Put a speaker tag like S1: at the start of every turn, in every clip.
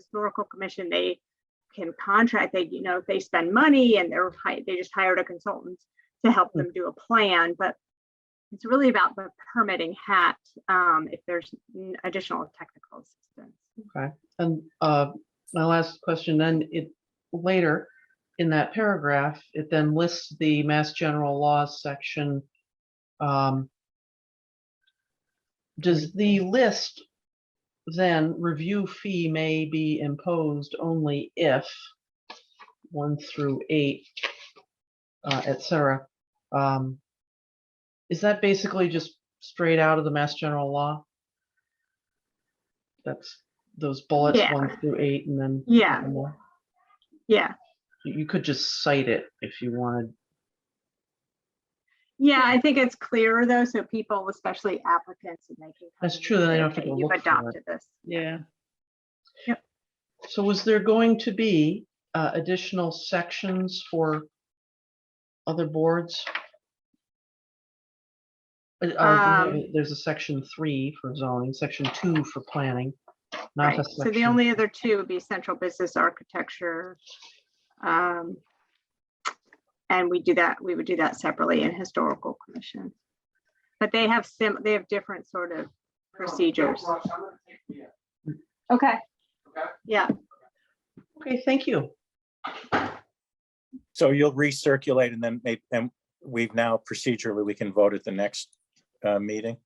S1: historical commission, they can contract, they, you know, if they spend money and they're, hi- they just hired a consultant to
S2: Hmm.
S1: help them do a plan, but it's really about the permitting hat, um, if there's n- additional technical assistance.
S2: And uh, my last question, then it, later in that paragraph, it then lists the Mass General Laws section. Um, Does the list then review fee may be imposed only if one through eight, uh, et cetera? um, Is that basically just straight out of the Mass General Law? That's those bullets,
S1: Yeah.
S2: one through eight, and then
S1: Yeah,
S2: one more.
S1: yeah,
S2: You you could just cite it if you wanted.
S1: yeah, I think it's clearer though, so people, especially applicants, and they can. come
S2: That's
S1: in and
S2: true, then they
S1: say,
S2: don't have to
S1: "Okay,
S2: go
S1: You've
S2: look for it."
S1: adopted this.
S2: Yeah.
S1: Yep.
S2: So was there going to be uh, additional sections for other boards? Uh, uh,
S1: Um,
S2: There's a section three for zoning, section two for planning. not
S1: Right,
S2: a
S1: so the
S2: section-
S1: only other two would be central business architecture. um, And we do that, we would do that separately in historical commission. But they have sim, they have different sort of procedures. Okay. Yeah,
S2: Okay, thank you.
S3: So you'll recirculate and then maybe, and we've now procedurally, we can vote at the next uh, meeting.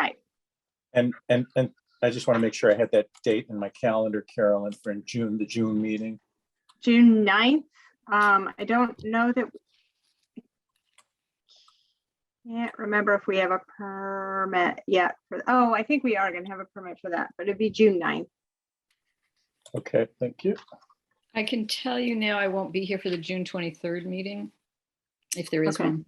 S1: right.
S3: And, and, and I just want to make sure I had that date in my calendar, Carolyn, for in June, the June meeting.
S1: June 9th. Um, I don't know that. Can't remember if we have a permit yet. for- Oh, I think we are going to have a permit for that, but it'd be June 9th.
S3: Okay, thank you.
S4: I can tell you now I won't be here for the June 23rd meeting, if there is
S1: Okay.
S4: one.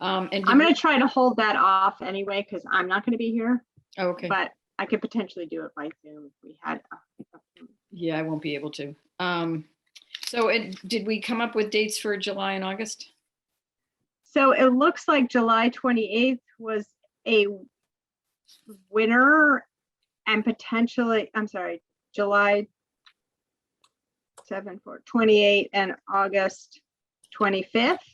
S4: Um, and.
S1: I'm
S4: did
S1: gonna try to hold that off anyway, because I'm not gonna be here,
S4: we- oh, Okay,
S1: but I could potentially do it by Zoom if we had. uh, a- a-
S4: yeah, I won't be able to. Um, so it, did we come up with dates for July and August?
S1: So it looks like July twenty-eighth was a winner and potentially, I'm sorry, July seven, four, twenty-eight and August twenty-fifth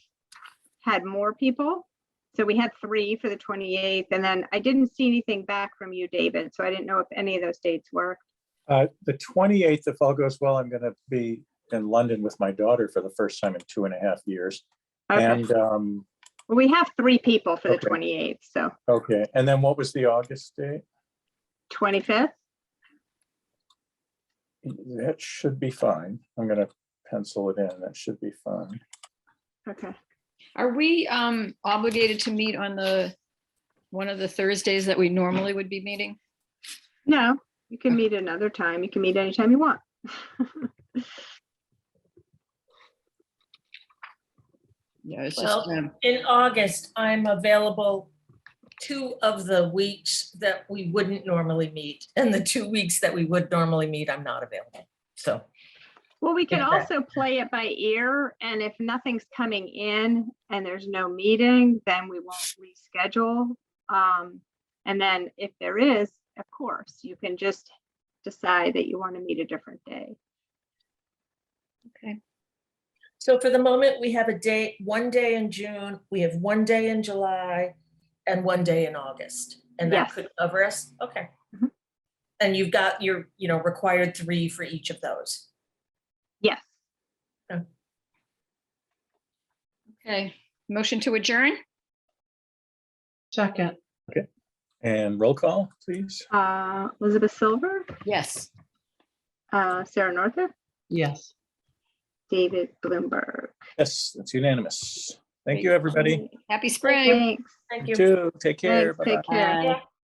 S1: had more people. So we had three for the twenty-eighth and then I didn't see anything back from you, David, so I didn't know if any of those dates worked.
S3: Uh, The 28th, if all goes well, I'm going to be in London with my daughter for the first time in two and a half years.
S1: Okay.
S3: And, um,
S1: Well, we have three people for the
S3: Okay.
S1: 28th, so
S3: okay, and then what was the August date?
S1: 25th,
S3: That should be fine. I'm going to pencil it in. That should be fine.
S1: okay.
S4: Are we, um, obligated to meet on the, one of the Thursdays that we normally would be meeting?
S1: No, you can meet another time, you can meet anytime you want.
S4: Yeah, it's just,
S5: Well-
S4: um,
S5: In August, I'm available two of the weeks that we wouldn't normally meet. And the two weeks that we would normally meet, I'm not available. So,
S1: Well, we can
S5: Yeah, that-
S1: also play it by ear, and if nothing's coming in and there's no meeting, then we won't reschedule. Um, and then if there is, of course, you can just decide that you want to meet a different day.
S4: okay,
S5: so for the moment, we have a day, one day in June, we have one day in July and one day in August. And that
S1: Yes.
S5: could cover us? Okay.
S1: Mhm.
S5: And you've got your, you know, required three for each of those.
S1: Yes,
S4: okay. Motion to adjourn?
S2: Second,
S3: And roll call, please.
S1: uh, Elizabeth Silver,
S4: Yes.
S1: uh, Sarah Northup,
S2: yes.
S1: David Bloomberg.
S3: Yes, that's unanimous. Thank you, everybody.
S4: Happy spring.
S1: Thanks.
S5: Thank
S3: You
S5: you.
S3: too. Take care.
S1: Thanks,
S3: Bye-bye.
S1: take care.
S4: Bye.